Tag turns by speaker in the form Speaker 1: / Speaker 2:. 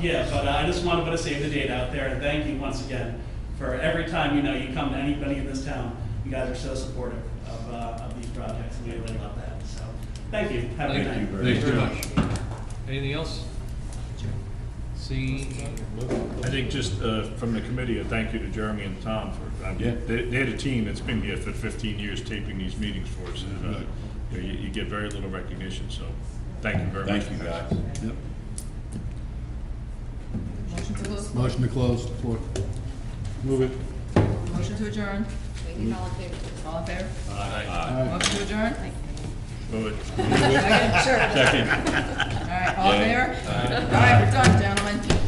Speaker 1: Yeah, but uh, I just wanted to put a save the date out there, and thank you once again for every time, you know, you come to anybody in this town, you guys are so supportive of, uh, of these projects, and we really love that, so, thank you, have a good night.
Speaker 2: Thank you
Speaker 3: Thank you
Speaker 2: very much.
Speaker 3: much. Anything else? See,
Speaker 4: I think just uh, from the committee, a thank you to Jeremy and Tom for, I mean,
Speaker 2: Yeah.
Speaker 4: they they had a team that's been here for 15 years taping these meetings for us. and uh, You know, you- you get very little recognition, so thank you very much.
Speaker 2: Thank you, guys. Yep.
Speaker 5: Motion to close,
Speaker 2: Motion to close, floor.
Speaker 4: Move it.
Speaker 5: motion to adjourn. All in favor?
Speaker 2: Aye.
Speaker 5: Motion to adjourn?
Speaker 4: Move it.
Speaker 5: Second?
Speaker 4: Second.
Speaker 5: All right, all in favor? All right, we're done, gentlemen.